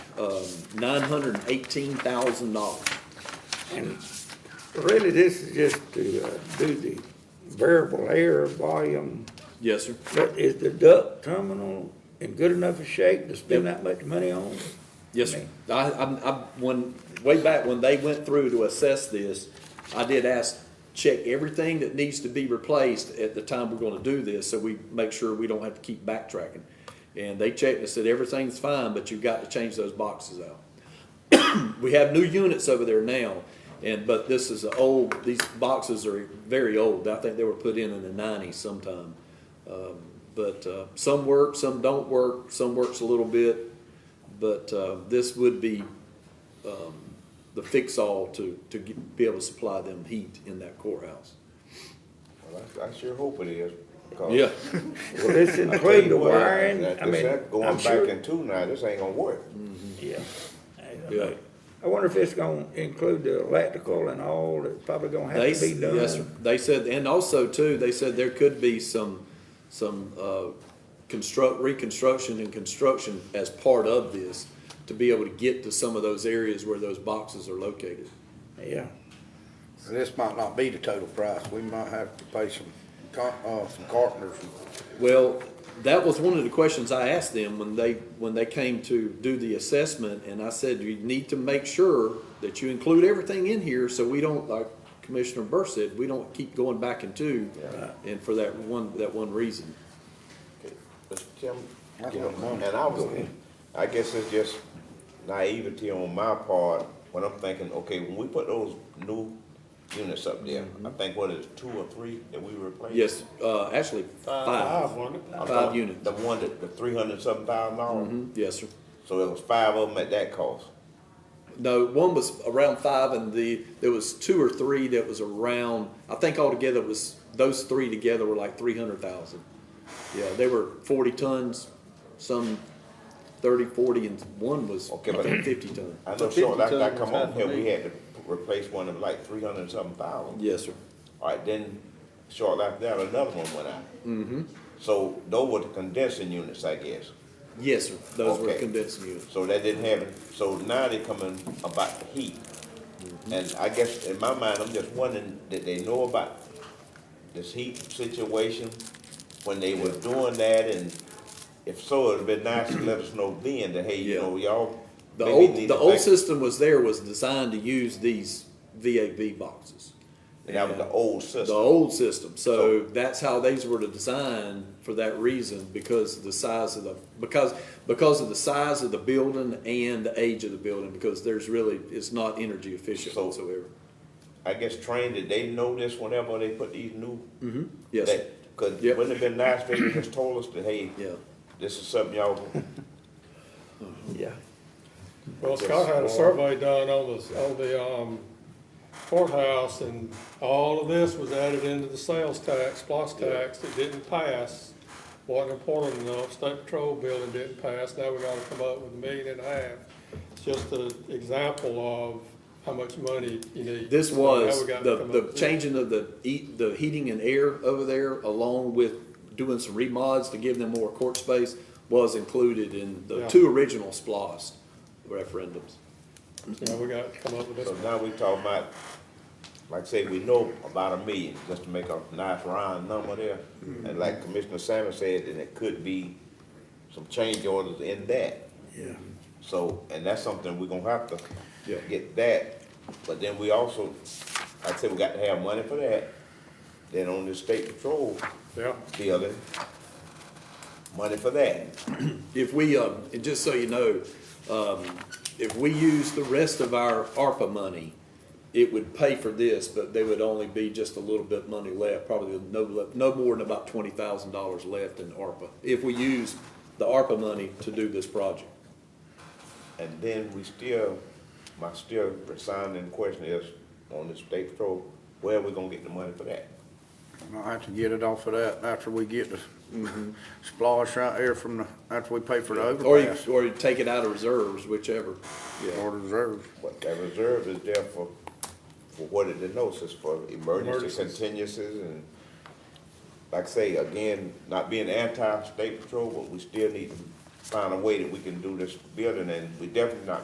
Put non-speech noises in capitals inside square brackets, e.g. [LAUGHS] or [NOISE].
um, nine hundred and eighteen thousand dollars. And really, this is just to uh, do the variable air volume, Yes, sir. but is the duct terminal in good enough a shape to spend that much money on? Yes, sir. I, I, I, when, way back when they went through to assess this, I did ask, check everything that needs to be replaced at the time we're gonna do this, so we make sure we don't have to keep backtracking. And they checked and said, everything's fine, but you've got to change those boxes out. [CLEARS THROAT] We have new units over there now, and, but this is an old, these boxes are very old. I think they were put in in the nineties sometime. Um, But, uh, some work, some don't work, some works a little bit. But, uh, this would be, um, the fix-all to, to get- be able to supply them heat in that courthouse. Well, I, I sure hope it is. 'cause Yeah, Will this [LAUGHS] I tell you include the what, wiring? that- I this mean, that I'm Going sure- back in two now, this ain't gonna work. Yeah. yeah. I wonder if it's gonna include the electrical and all that's probably gonna They, have to be done? yes, sir. They said, and also too, they said there could be some, some, uh, construct, reconstruction and construction as part of this to be able to get to some of those areas where those boxes are located. Yeah. This might not be the total price, we might have to pay some, car- uh, some carpenters. Well, that was one of the questions I asked them when they, when they came to do the assessment, and I said, you need to make sure that you include everything in here, so we don't, like Commissioner Burr said, we don't keep going back and two, and for that one, that one reason. Mr. Tim, I don't you know, know. and I was, I guess it's just naivety on my part, when I'm thinking, okay, when we put those new units up there, Mm-hmm. I think what is it, two or three that we replaced? Yes, uh, actually, five, I'm five talking units. The one that, the three hundred something thousand Mm-hmm. dollars, Mhm, Yes, sir. so there was five of them at that cost. No, one was around five and the, there was two or three that was around, I think altogether it was, those three together were like three hundred thousand. Yeah, they were forty tons, some thirty, forty, and one was I Okay, but- think, fifty ton. I know, sure, like, I come on here, we had to replace one of like three hundred something thousand. Yes, sir. All right, then shortly after that, another one went out. Mm-hmm. So those were the condensing units, I guess. Yes, sir. Those were Okay. condensing units. So that didn't happen. So now they coming about the heat. Mm-hmm. And I guess in my mind, I'm just wondering, did they know about this heat situation when they were doing that? And if so, it'd been nice to let us know then that, hey, you Yeah. know, y'all. The maybe old, need the to old think- system was there, was designed to use these VAV boxes. That was the old system. Oh. The old system, so that's how these were designed for that reason, because of the size of the, because, because of the size of the building and the age of the building, because there's really, it's not energy efficient So- whatsoever. I guess trained, did they know this whenever they put these new? Yes, sir. that- Cause Yep. wouldn't it been nice if they just told us that, hey, yeah, this is [LAUGHS] something y'all, Yeah. Well, Scott had a survey done on the, on the, um, courthouse, and all of this was added into the sales tax, plus tax, it didn't pass. Wasn't important enough, state patrol building didn't pass, now we gotta come up with a million and a half. It's just an example of how much money you need. this So now was, we gotta the, come up the with- changing of the eat, the heating and air over there, along with doing some remods to give them more court space, was included in the Yeah. two original SPOS referendums. Yeah, we gotta come up with so this. now we talking about, like I say, we know about a million, just to make a nice round number there. Mm-hmm. And like Commissioner Salmon said, and it could be some change orders in that. Yeah. So, and that's something we're gonna have to Yeah. get that, but then we also, like I said, we got to have money for that. Then on the state patrol Yeah, building, money for that. If we, um, and just so you know, um, if we use the rest of our ARPA money, it would pay for this, but there would only be just a little bit money left, probably no, le- no more than about twenty thousand dollars left in ARPA, if we use the ARPA money to do this project. And then we still, my still resounding question is, on the state patrol, where we gonna get the money for that? Might have to get it off of that after we get the [LAUGHS] splash right there from the, after we pay for the Or you, overpass. or you take it out of reserves, whichever. Or the reserves. But that reserve is there for, for what it denotes, it's for emergency Emergencies. contingencies and, like I say, again, not being anti-state patrol, but we still need to find a way that we can do this building, and we definitely not